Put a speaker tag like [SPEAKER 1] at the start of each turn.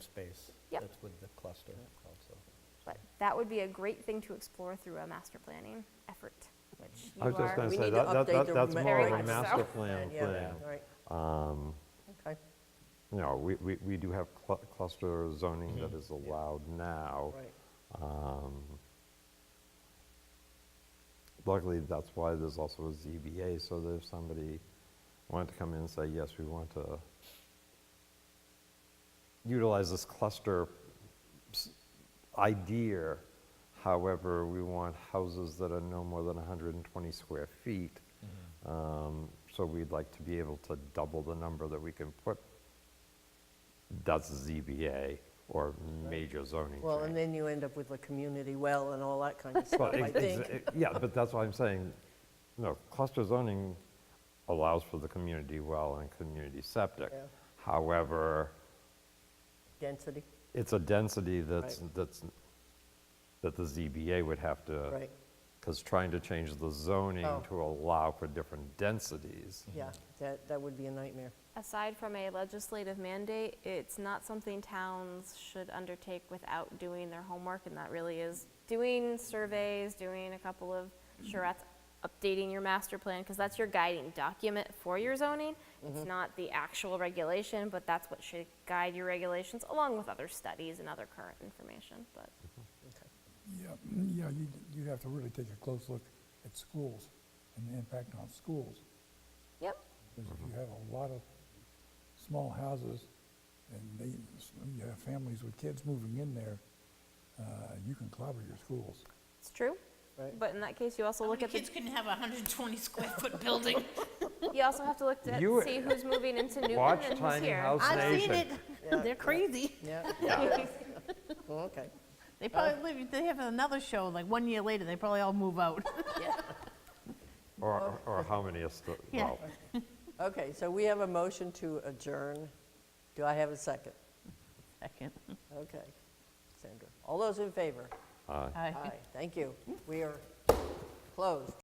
[SPEAKER 1] Yep.
[SPEAKER 2] That's with the cluster also.
[SPEAKER 1] But that would be a great thing to explore through a master planning effort, which you
[SPEAKER 3] I was just
[SPEAKER 1] are.
[SPEAKER 3] going
[SPEAKER 4] We
[SPEAKER 3] to say,
[SPEAKER 4] need to
[SPEAKER 3] that- that,
[SPEAKER 4] update
[SPEAKER 3] that-
[SPEAKER 4] the
[SPEAKER 3] that's more
[SPEAKER 1] Very
[SPEAKER 3] of a
[SPEAKER 1] much so.
[SPEAKER 3] master plan
[SPEAKER 4] Yeah,
[SPEAKER 3] thing.
[SPEAKER 4] all right, okay,
[SPEAKER 3] You know, we, we, we do have clu- cluster zoning that is allowed now.
[SPEAKER 4] right.
[SPEAKER 3] Um, Luckily, that's why there's also a ZBA, so that if somebody wanted to come in and say, yes, we want to utilize this cluster s- idea, however, we want houses that are no more than 120 square feet, um, so we'd like to be able to double the number that we can put, that's ZBA or major zoning change.
[SPEAKER 4] Well, and then you end up with a community well and all that kind of
[SPEAKER 3] Well,
[SPEAKER 4] stuff, I
[SPEAKER 3] ex- ex-
[SPEAKER 4] think.
[SPEAKER 3] e- Yeah, but that's why I'm saying, no, cluster zoning allows for the community well and community septic.
[SPEAKER 4] Yeah.
[SPEAKER 3] However,
[SPEAKER 4] Density,
[SPEAKER 3] it's a density that's,
[SPEAKER 4] Right.
[SPEAKER 3] that's, that the ZBA would have to.
[SPEAKER 4] right,
[SPEAKER 3] Because trying to change the zoning
[SPEAKER 4] Oh.
[SPEAKER 3] to allow for different densities.
[SPEAKER 4] yeah, that, that would be a nightmare.
[SPEAKER 1] Aside from a legislative mandate, it's not something towns should undertake without doing their homework, and that really is doing surveys, doing a couple of charrettes, updating your master plan, because that's your guiding document for your zoning.
[SPEAKER 3] Mm-hmm.
[SPEAKER 1] It's not the actual regulation, but that's what should guide your regulations, along with other studies and other current information, but.
[SPEAKER 5] Yeah, mm, yeah, you, you have to really take a close look at schools and the impact on schools.
[SPEAKER 1] Yep,
[SPEAKER 5] Because you have a lot of small houses and they, you have families with kids moving in there, uh, you can clobber your schools.
[SPEAKER 1] it's true.
[SPEAKER 4] Right.
[SPEAKER 1] But in that case, you also
[SPEAKER 6] How
[SPEAKER 1] look
[SPEAKER 6] many
[SPEAKER 1] at the,
[SPEAKER 6] kids can have a 120 square foot building?
[SPEAKER 1] you also have to look at,
[SPEAKER 3] You-
[SPEAKER 1] see who's moving into Newton
[SPEAKER 3] Watch
[SPEAKER 1] and who's
[SPEAKER 3] Tiny
[SPEAKER 1] here.
[SPEAKER 3] House
[SPEAKER 6] I've seen it.
[SPEAKER 3] Nation.
[SPEAKER 6] They're crazy.
[SPEAKER 4] Yeah, well, okay,
[SPEAKER 6] They probably live, if they have another show, like one year later, they probably all move out.
[SPEAKER 3] Or,
[SPEAKER 4] Oh.
[SPEAKER 3] or how many are still,
[SPEAKER 6] Yeah.
[SPEAKER 3] well,
[SPEAKER 4] okay, so we have a motion to adjourn. Do I have a second?
[SPEAKER 6] Second.
[SPEAKER 4] Okay, Sandra, all those in favor?
[SPEAKER 3] uh,
[SPEAKER 6] Aye.
[SPEAKER 4] Aye, thank you. We are closed.